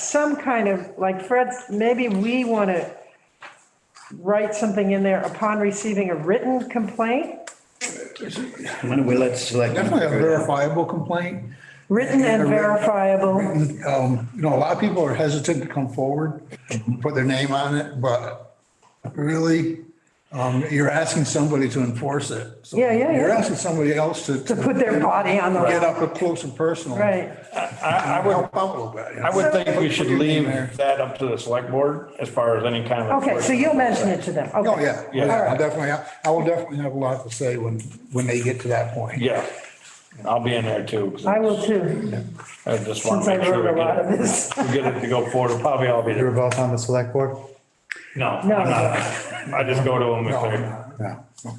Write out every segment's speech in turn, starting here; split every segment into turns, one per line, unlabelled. some kind of, like Fred, maybe we want to write something in there upon receiving a written complaint,
Why don't we let select.
Definitely a verifiable complaint.
written and verifiable.
Um, You know, a lot of people are hesitant to come forward, put their name on it, but really, um, you're asking somebody to enforce it. So
Yeah, yeah,
You're
yeah.
asking somebody else to.
To put their body on the
Get
line.
up close and personal.
Right,
I, I would,
Help out a little bit. you know.
I would think we should leave
There.
that up to the select board as far as any kind of.
okay, so you'll mention it to them, okay.
Oh, yeah,
Yeah.
yeah, I'll definitely, I will definitely have a lot to say when, when they get to that point.
Yeah, I'll be in there too. 'cause
I will too,
I just
since
want to
I
make sure
wrote a
we
lot of
get it,
this.
we get it to go forward, probably I'll be
You were
there.
both on the select board?
No, I'm
No.
not. I just go to them if they're,
Um, Yeah.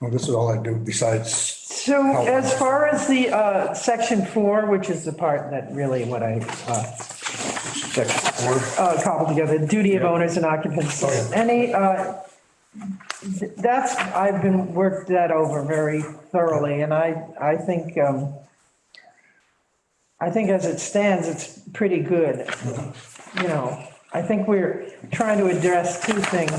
Well, this is all I do besides,
So as far as the, uh, section four, which is the part that really what I, uh, uh, cobbled together, duty of owners and occupants. Any, uh, th- that's, I've been, worked that over very thoroughly, and I, I think, um, I think as it stands, it's pretty good, you know. I think we're trying to address two things,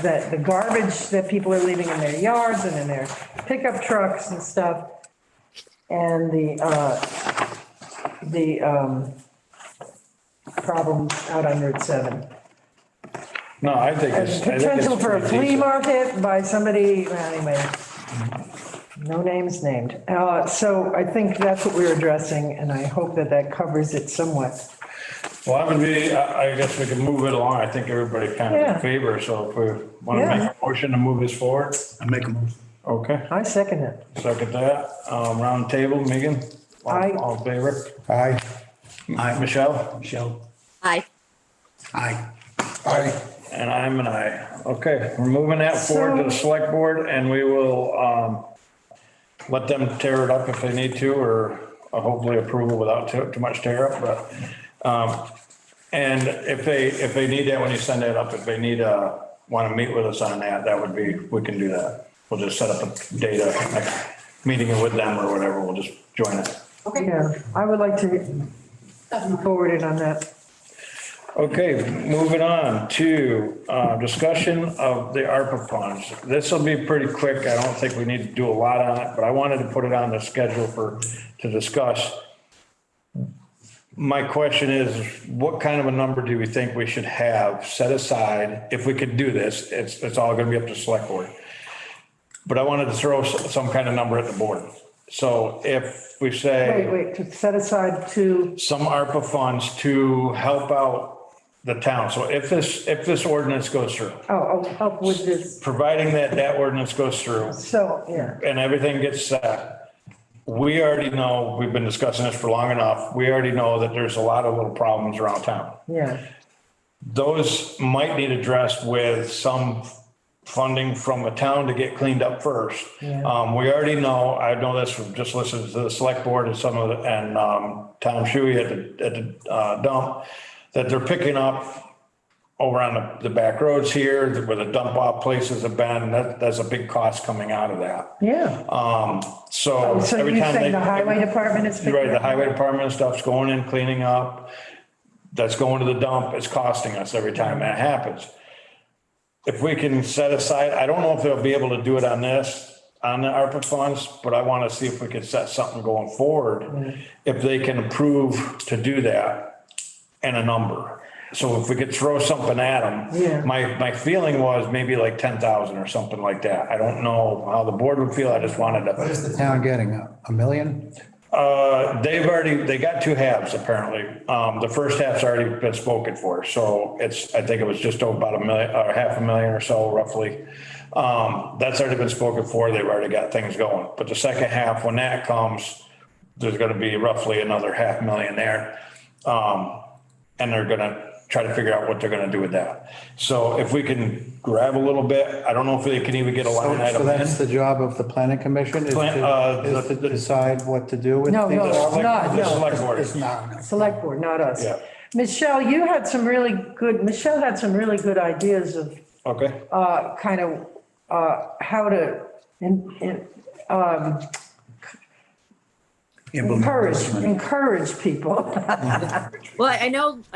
that the garbage that people are leaving in their yards and in their pickup trucks and stuff, and the, uh, the, um, problems out on Route 7.
no, I think it's. I think it's
Potential for a
pretty
flea
decent.
market by somebody, well, anyway, no names named. Uh, So I think that's what we're addressing, and I hope that that covers it somewhat.
Well, I would be, I, I guess we can move it along. I think everybody kind of
Yeah.
in favor, so if we want to
Yeah.
make a motion to move this forward,
I make a motion.
okay.
I second it.
Second that, um, round table, Megan? All-
Aye.
All in favor?
Aye.
Aye,
Michelle?
Michelle.
Aye.
Aye.
I,
And I'm an aye. Okay, we're moving that forward to the
So-
select board and we will, um, let them tear it up if they need to, or hopefully approval without too, too much tear up, but, um, and if they, if they need that, when you send that up, if they need, uh, want to meet with us on that, that would be, we can do that. We'll just set up a data, like, meeting with them or whatever, we'll just join it.
Yeah, I would like to forward it on that.
Okay, moving on to uh, discussion of the ARPA funds. This will be pretty quick. I don't think we need to do a lot on it, but I wanted to put it on the schedule for, to discuss. My question is, what kind of a number do we think we should have set aside? If we could do this, it's, it's all going to be up to select board. But I wanted to throw s- some kind of number at the board. So if we say.
Wait, wait, to set aside to,
some ARPA funds to help out the town. So if this, if this ordinance goes through,
oh, oh, help with this,
providing that that ordinance goes through
so, yeah.
and everything gets set, we already know, we've been discussing this for long enough, we already know that there's a lot of little problems around town.
Yeah,
Those might need addressed with some funding from the town to get cleaned up first.
Yeah.
Um, we already know, I know this from just listening to the select board and some of, the- and, um, Tom Shuey at the, at the uh, dump, that they're picking up over on the, the back roads here, where the dump off places have been, that, that's a big cost coming out of that.
yeah.
Um, so
So
every
you're
time they.
saying the highway department is.
You're Right, the highway department and stuff's going in, cleaning up, that's going to the dump, it's costing us every time that happens. If we can set aside, I don't know if they'll be able to do it on this, on the ARPA funds, but I want to see if we could set something going forward, if they can approve to do that and a number. So if we could throw something at them.
Yeah.
My, my feeling was maybe like ten thousand or something like that. I don't know how the board would feel, I just wanted to.
What is the town getting? A a million?
Uh, they've already, they got two halves apparently. Um, the first half's already been spoken for, so it's, I think it was just about a million, or half a million or so roughly. Um, that's already been spoken for, they've already got things going. But the second half, when that comes, there's gonna be roughly another half million there. Um, and they're gonna try to figure out what they're gonna do with that. So if we can grab a little bit, I don't know if they can even get a line
So
item in.
that's the job of the planning commission is
Plan- uh,
to is
the-
to decide what to do with
No,
things?
no, it's not,
The
no.
select board.
it's not.
Select board, not us.
Yeah.
Michelle, you had some really good, Michelle had some really good ideas of
Okay,
uh, kind of uh, how to in- in- encourage, encourage people.
Well, I know